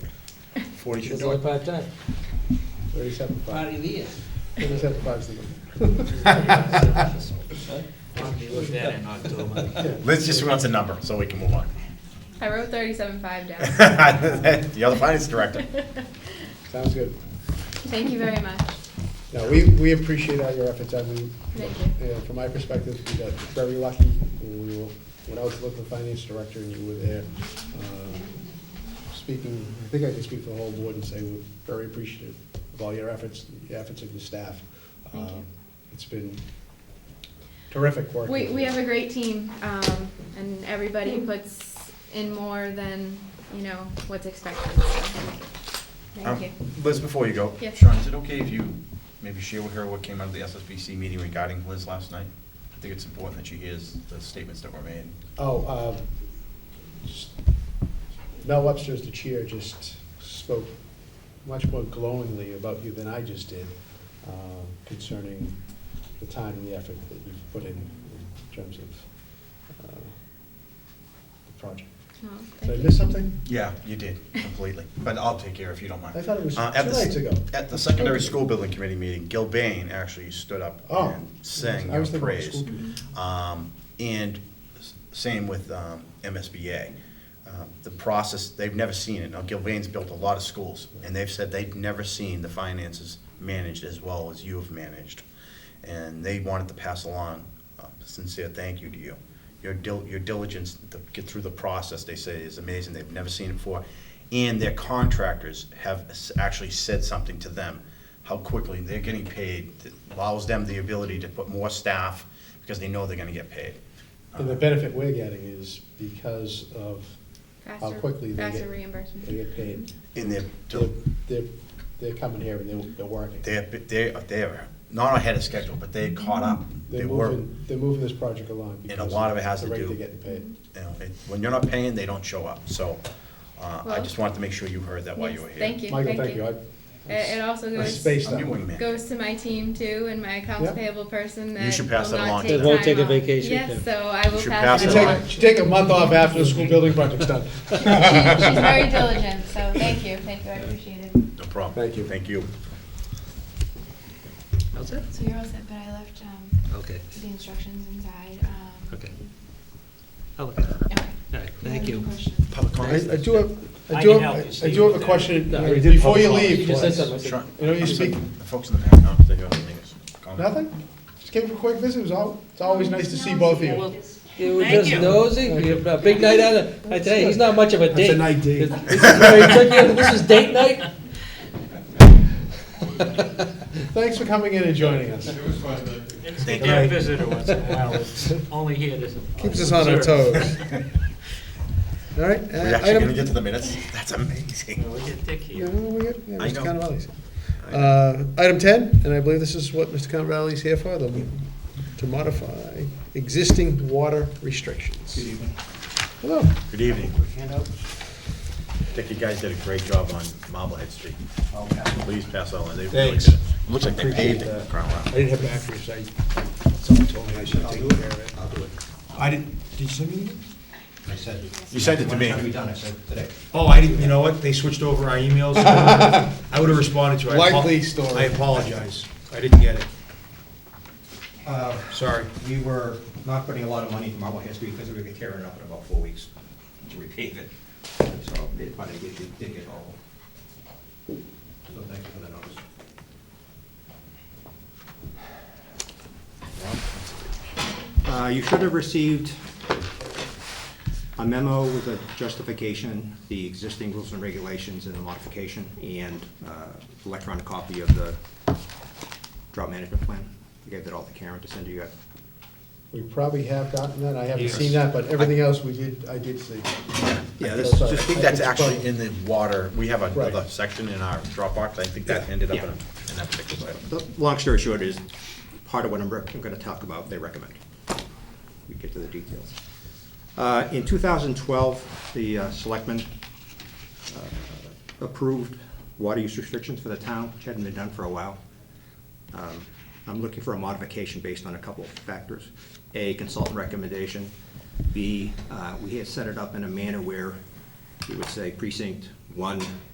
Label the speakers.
Speaker 1: Forty should
Speaker 2: It's
Speaker 1: do
Speaker 2: only
Speaker 1: it.
Speaker 2: part-time.
Speaker 3: Thirty-seven five.
Speaker 4: Party of the year.
Speaker 3: Thirty-seven five is the
Speaker 4: Huh?
Speaker 3: number.
Speaker 4: Want to look that in October.
Speaker 1: Liz just wants a number, so we can move on.
Speaker 5: I wrote thirty-seven five down.
Speaker 1: The other finance director.
Speaker 3: Sounds good.
Speaker 5: Thank you very much.
Speaker 3: No, we, we appreciate all your efforts, I mean,
Speaker 5: Thank
Speaker 3: yeah, from my perspective, we got very lucky. We were, when I was the local finance director and you were there, um, speaking, I think I can speak for the whole board and say we're very appreciative of all your efforts, the efforts of your staff.
Speaker 5: Thank you.
Speaker 3: Um, It's been terrific work.
Speaker 5: We, we have a great team, um, and everybody puts in more than, you know, what's expected, so, thank
Speaker 1: Um,
Speaker 5: you. Oh,
Speaker 1: Liz, before you go.
Speaker 5: Yes.
Speaker 1: Sean, is it okay if you maybe share with her what came out of the SSBC meeting regarding Liz last night? I think it's important that she hears the statements that were made.
Speaker 3: Oh, uh, s- Mel Webster's the chair, just spoke much more glowingly about you than I just did uh, concerning the time and the effort that you've put in in terms of uh, the project.
Speaker 5: No,
Speaker 3: Did I miss
Speaker 5: thank you.
Speaker 3: something?
Speaker 1: Yeah, you did, completely. But I'll take care if you don't mind.
Speaker 3: I thought it was
Speaker 1: Uh, at
Speaker 3: two
Speaker 1: the s-
Speaker 3: nights ago.
Speaker 1: At the secondary school building committee meeting, Gil Bain actually stood up
Speaker 3: Oh.
Speaker 1: and sang
Speaker 3: I
Speaker 1: your
Speaker 3: was thinking about the
Speaker 1: praise.
Speaker 3: school committee.
Speaker 1: Um, And s- same with um, MSBA. Um, The process, they've never seen it. Now, Gilvain's built a lot of schools, and they've said they've never seen the finances managed as well as you have managed. And they wanted to pass along uh, a sincere thank you to you. Your dil, your diligence to get through the process, they say, is amazing. They've never seen it before. And their contractors have s- actually said something to them, how quickly they're getting paid, that allows them the ability to put more staff because they know they're gonna get paid.
Speaker 3: And
Speaker 1: Uh,
Speaker 3: the benefit we're getting is because of how
Speaker 5: Faster-
Speaker 3: quickly they
Speaker 5: Faster
Speaker 3: get, they
Speaker 5: reimbursement.
Speaker 3: get paid.
Speaker 1: In their,
Speaker 3: They're, they're, they're coming here and they're, they're working.
Speaker 1: they're, they're, they're not ahead of schedule, but they caught up. They
Speaker 3: They're
Speaker 1: were,
Speaker 3: moving, they're moving this project along.
Speaker 1: a
Speaker 3: because
Speaker 1: lot of it has
Speaker 3: the
Speaker 1: to
Speaker 3: rate
Speaker 1: do-
Speaker 3: they're getting paid.
Speaker 1: you know, it- when you're not paying, they don't show up. So, uh, I
Speaker 5: Well-
Speaker 1: just wanted to make sure you heard that while you
Speaker 5: Yes,
Speaker 1: were here.
Speaker 5: Thank you,
Speaker 3: Michael, thank
Speaker 5: thank
Speaker 3: you.
Speaker 5: you.
Speaker 3: I-
Speaker 5: It, it also
Speaker 3: I
Speaker 5: goes,
Speaker 3: spaced
Speaker 1: I'm
Speaker 3: that
Speaker 1: your
Speaker 3: one.
Speaker 1: wingman.
Speaker 5: goes to my team too, and my accounts
Speaker 3: Yeah.
Speaker 5: payable person that
Speaker 1: should
Speaker 5: will
Speaker 1: pass that along
Speaker 5: not
Speaker 1: to
Speaker 5: take
Speaker 1: them.
Speaker 5: time
Speaker 1: Won't
Speaker 5: off.
Speaker 2: take a vacation, Tim.
Speaker 5: Yes, so I will
Speaker 1: should
Speaker 5: pass
Speaker 1: pass
Speaker 3: You
Speaker 5: it
Speaker 1: it
Speaker 5: along.
Speaker 3: take, you take a month off after the school building project's done.
Speaker 5: She- She's very diligent, so thank you, thank you, I appreciate it.
Speaker 1: No problem.
Speaker 3: Thank you.
Speaker 1: Thank you.
Speaker 2: That's it?
Speaker 6: So you're all set, but I left um,
Speaker 2: Okay,
Speaker 6: the instructions inside. um,
Speaker 2: okay. I'll look at it.
Speaker 6: Okay.
Speaker 2: All right,
Speaker 6: I have
Speaker 2: thank
Speaker 6: no
Speaker 2: you.
Speaker 6: questions.
Speaker 1: Public comment?
Speaker 3: I do have, I
Speaker 4: I
Speaker 3: do
Speaker 4: can help you,
Speaker 3: have, I
Speaker 4: Steve,
Speaker 3: do have
Speaker 4: with
Speaker 3: a
Speaker 4: that.
Speaker 3: question.
Speaker 2: No, we did
Speaker 3: Before you
Speaker 2: public
Speaker 3: leave,
Speaker 2: You just said
Speaker 3: Liz,
Speaker 2: something.
Speaker 1: Sure.
Speaker 3: You know, you
Speaker 1: I'm
Speaker 3: speak-
Speaker 1: sorry, The folks in the back, no, they got anything else? Comment?
Speaker 3: nothing? Just came for a quick visit. It was all, it's always nice to see both of you.
Speaker 2: You were
Speaker 4: Thank
Speaker 2: just
Speaker 4: you.
Speaker 2: nosy, you have a big night out of, I tell you, he's not much of a
Speaker 3: That's
Speaker 2: date.
Speaker 3: a night date.
Speaker 2: This is where he took you- This is date night?
Speaker 3: Thanks for coming in and joining us.
Speaker 4: It's good
Speaker 1: Thank
Speaker 4: to have
Speaker 3: you.
Speaker 4: a visitor once in a while, it's only here to.
Speaker 3: Keeps us on our toes. All right. uh,
Speaker 1: We're actually gonna get to the minutes? That's amazing.
Speaker 4: We get Dick
Speaker 3: Yeah,
Speaker 4: here.
Speaker 3: no, we get, yeah,
Speaker 1: I
Speaker 3: Mr.
Speaker 1: know.
Speaker 3: Conrades. Uh Item 10, and I believe this is what Mr. Conrades here for, the- to modify existing water restrictions. Good evening. Hello.
Speaker 1: Good evening. I think you guys did a great job on Marblehead Street. Please pass on, they really
Speaker 3: Thanks.
Speaker 1: did. it. Looks like they
Speaker 3: Appreciate
Speaker 1: paved it.
Speaker 3: that.
Speaker 1: Crown Rock.
Speaker 3: I didn't have batteries, I, someone told me I should take care of it. I'll do it. I didn't, did you send me?
Speaker 7: I said,
Speaker 1: You sent it to
Speaker 7: when can we
Speaker 1: me.
Speaker 7: done? I said today. Oh, I didn't, you know what? They switched over our emails. I would have responded to it. I apo-
Speaker 3: Likely story.
Speaker 7: I apologize. I didn't get it.
Speaker 8: Uh,
Speaker 7: Sorry.
Speaker 8: We were not putting a lot of money into Marblehead Street because we were gonna tear it up in about four weeks to repave it. So they probably did, they did get all. So thank you for the notice. Uh, You should have received a memo with a justification, the existing rules and regulations and the modification, and uh, electronic copy of the drought management plan. I gave that all to Karen to send to you.
Speaker 3: We probably have gotten that, I haven't
Speaker 4: Yes.
Speaker 3: seen that, but everything else we did, I did see.
Speaker 7: Yeah,
Speaker 3: this-
Speaker 1: I think that's actually in the water, we have another
Speaker 3: Right.
Speaker 1: section in our Dropbox, I think that ended up in,
Speaker 7: Yeah.
Speaker 1: in that particular item.
Speaker 7: The long story short is, part of what I'm rec- I'm gonna talk about, they recommend. We get to the details. Uh, In 2012, the uh, selectmen uh, approved water use restrictions for the town, which hadn't been done for a while. Um, I'm looking for a modification based on a couple of factors. A, consultant recommendation. B, uh, we had set it up in a manner where we would say precinct one